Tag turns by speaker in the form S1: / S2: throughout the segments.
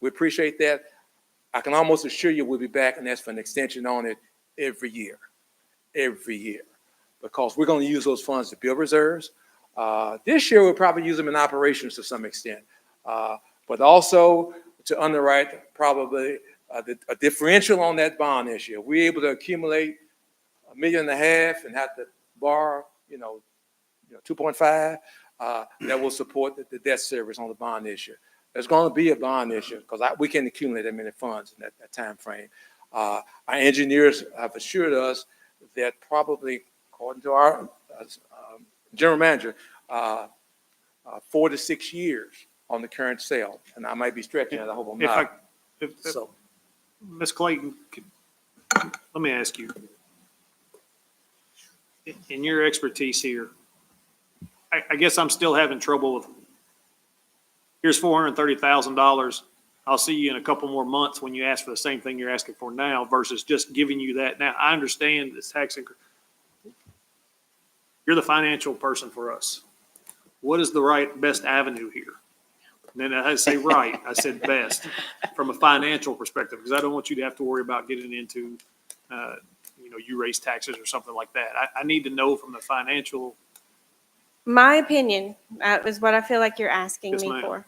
S1: We appreciate that. I can almost assure you we'll be back and ask for an extension on it every year, every year. Because we're going to use those funds to build reserves. Uh, This year, we'll probably use them in operations to some extent. Uh, But also to underwrite probably uh, the- a differential on that bond issue. If We're able to accumulate a million and a half and have to borrow, you know, you know, 2.5, uh, that will support the- the debt service on the bond issue. There's going to be a bond issue because we can accumulate that many funds in that, that timeframe. Uh, Our engineers have assured us that probably, according to our uh, um, general manager, uh, uh, four to six years on the current sale. And I might be stretching it, I hope I'm
S2: If I,
S1: not.
S2: if, if-
S1: So,
S2: Ms. Clayton, could- let me ask you. In- In your expertise here, I, I guess I'm still having trouble with, here's four hundred and thirty thousand dollars. I'll see you in a couple more months when you ask for the same thing you're asking for now versus just giving you that. Now, I understand this tax increase. You're the financial person for us. What is the right, best avenue here? And then I say right, I said best from a financial perspective, because I don't want you to have to worry about getting into, uh, you know, you raise taxes or something like that. I, I need to know from the financial,
S3: My opinion, that is what I feel like you're asking
S2: Yes,
S3: me
S2: ma'am.
S3: for.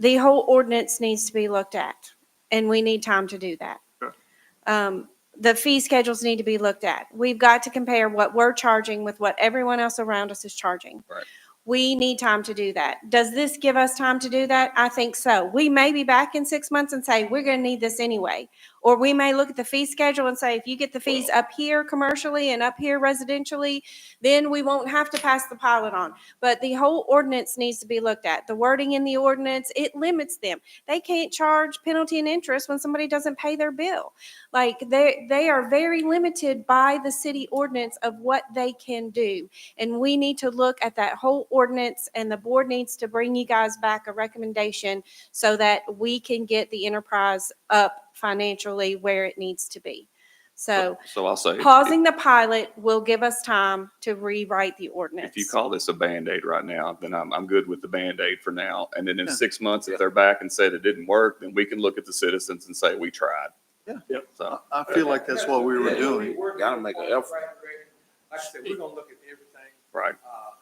S3: The whole ordinance needs to be looked at, and we need time to do that.
S2: Sure.
S3: Um, The fee schedules need to be looked at. We've got to compare what we're charging with what everyone else around us is charging.
S4: Right.
S3: We need time to do that. Does this give us time to do that? I think so. We may be back in six months and say, we're going to need this anyway. Or we may look at the fee schedule and say, if you get the fees up here commercially and up here residentially, then we won't have to pass the pilot on. But the whole ordinance needs to be looked at. The wording in the ordinance, it limits them. They can't charge penalty and interest when somebody doesn't pay their bill. Like they, they are very limited by the city ordinance of what they can do. And we need to look at that whole ordinance and the board needs to bring you guys back a recommendation so that we can get the enterprise up financially where it needs to be. So
S4: So I'll say, if
S3: pausing the pilot will give us time to rewrite the ordinance.
S4: if you call this a Band-Aid right now, then I'm, I'm good with the Band-Aid for now. And then in
S5: Yeah.
S4: six months, if they're back and said it didn't work, then we can look at the citizens and say, we tried.
S5: Yeah.
S2: Yep.
S4: So.
S5: I feel like that's what we were doing.
S6: Gotta make an effort.
S1: Like I said, we're going to look at everything.
S4: Right.
S1: uh,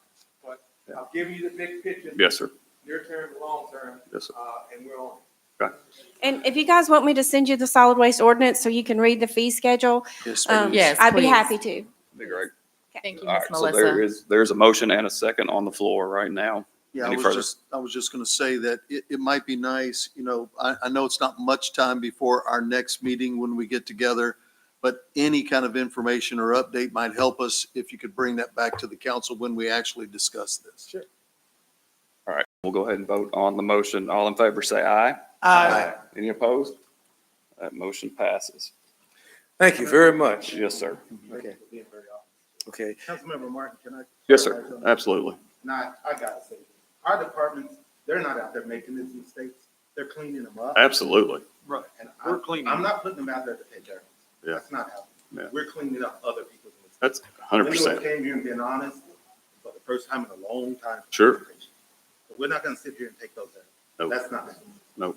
S1: But i will give you the big picture.
S4: Yes, sir.
S1: Near term, long term,
S4: Yes, sir.
S1: uh, and we're on.
S3: And if you guys want me to send you the solid waste ordinance so you can read the fee schedule,
S5: Yes,
S3: um,
S5: ma'am.
S7: Yes,
S3: I'd be
S7: please.
S3: happy to.
S4: Be great.
S7: Thank you,
S4: All
S7: Ms.
S4: right. So there
S7: Melissa.
S4: is, there's a motion and a second on the floor right now.
S5: Yeah, I
S4: Any
S5: was
S4: further?
S5: just, I was just going to say that it, it might be nice, you know, I, I know it's not much time before our next meeting when we get together, but any kind of information or update might help us if you could bring that back to the council when we actually discuss this.
S4: All right. We'll go ahead and vote on the motion. All in favor, say aye.
S5: Aye.
S4: Any opposed? That motion passes.
S1: Thank you very much.
S4: Yes, sir.
S8: Okay.
S1: Okay.
S8: Councilmember Martin, can I?
S4: Yes, sir. Absolutely.
S8: Nah, I gotta say, our departments, they're not out there making these mistakes. They're cleaning them up.
S4: Absolutely.
S8: And I-
S2: We're cleaning them.
S8: I'm not putting them out there to pay taxes.
S4: Yeah.
S8: That's not happening.
S4: Yeah.
S8: We're cleaning up other people's mistakes.
S4: That's hundred percent.
S8: We came here and being honest for the first time in a long time.
S4: Sure.
S8: But We're not gonna sit here and take those
S4: No.
S8: out. That's not happening.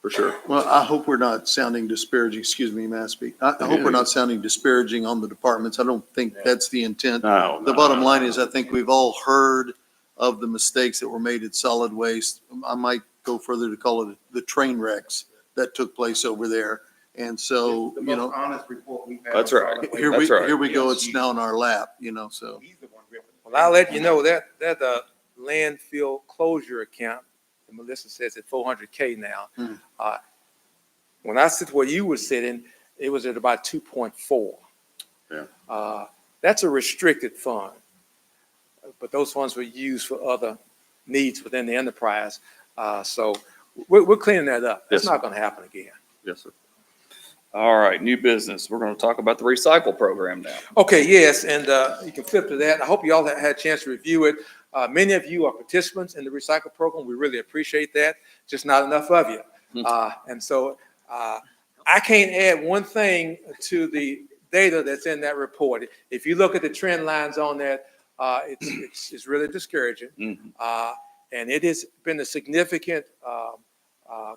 S4: For sure.
S5: Well, I hope we're not sounding disparaging, excuse me, Mashpee. I, I hope we're not sounding disparaging on the departments. I don't think that's the intent.
S4: No.
S5: The
S4: no,
S5: bottom
S4: no.
S5: line is, I think we've all heard of the mistakes that were made at solid waste. I might go further to call it the train wrecks that took place over there. And so,
S8: The
S5: you
S8: most
S5: know,
S8: honest report we've had.
S4: That's
S8: on
S4: right.
S8: solid waste.
S5: here we,
S4: That's right.
S5: here we go, it's
S8: Yes.
S5: now in our lap, you know, so.
S8: He's the one ripping.
S1: Well, I'll let you know that, that, uh, landfill closure account, and Melissa says at four hundred K now.
S5: Hmm.
S1: Uh, When I sit where you were sitting, it was at about two point four.
S4: Yeah.
S1: Uh, that's a restricted fund. But those funds were used for other needs within the enterprise. Uh, so we're, we're cleaning that up. It's
S4: Yes, sir.
S1: not gonna happen again.
S4: Yes, sir. All right, new business. We're going to talk about the recycle program now.
S1: Okay, yes, and uh, you can flip to that. I hope you all ha- had a chance to review it. Uh, Many of you are participants in the recycle program. We really appreciate that, just not enough of you. Uh, And so uh, I can't add one thing to the data that's in that report. If you look at the trend lines on that, uh, it's- it's it's
S4: Mm.
S1: really discouraging.
S4: Mhm.
S1: Uh, And it has been a significant um, uh,